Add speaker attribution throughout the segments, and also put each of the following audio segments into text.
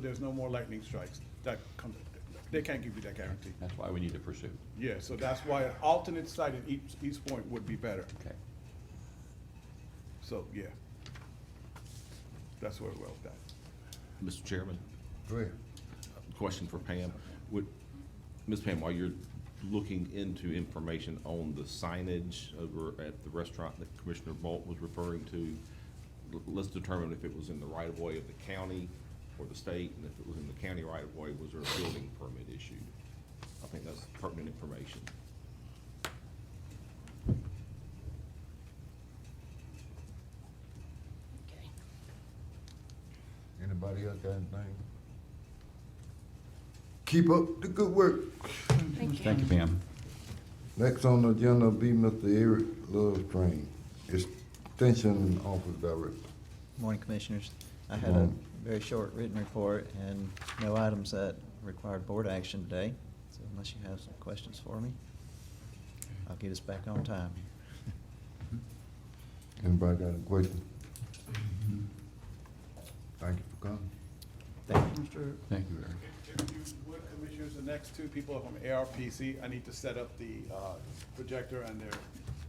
Speaker 1: There's no more lightning strikes. That comes, they can't give you that guarantee.
Speaker 2: That's why we need to pursue.
Speaker 1: Yeah, so that's why an alternate site at East, East Point would be better.
Speaker 2: Okay.
Speaker 1: So, yeah. That's where we're at.
Speaker 3: Mr. Chairman,
Speaker 4: Go ahead.
Speaker 3: question for Pam. Would, Ms. Pam, while you're looking into information on the signage over at the restaurant that Commissioner Bolt was referring to, l- let's determine if it was in the right of way of the county or the state, and if it was in the county right of way, was there a building permit issued? I think that's pertinent information.
Speaker 4: Anybody else got anything? Keep up the good work.
Speaker 5: Thank you.
Speaker 2: Thank you, Pam.
Speaker 4: Next on the agenda will be Mr. Eric Love Train, Extension Office Director.
Speaker 6: Morning, Commissioners. I had a
Speaker 4: Morning.
Speaker 6: very short written report and no items that required board action today, so unless you have some questions for me, I'll get us back on time.
Speaker 4: Anybody got a question? Thank you for coming.
Speaker 6: Thank you.
Speaker 1: Mr.
Speaker 2: Thank you, Eric.
Speaker 1: If you would, Commissioners, the next two people are from ARPC. I need to set up the uh, projector and their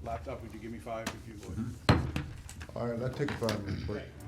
Speaker 1: laptop. Would you give me five if you would?
Speaker 4: All right, let's take a five minute break.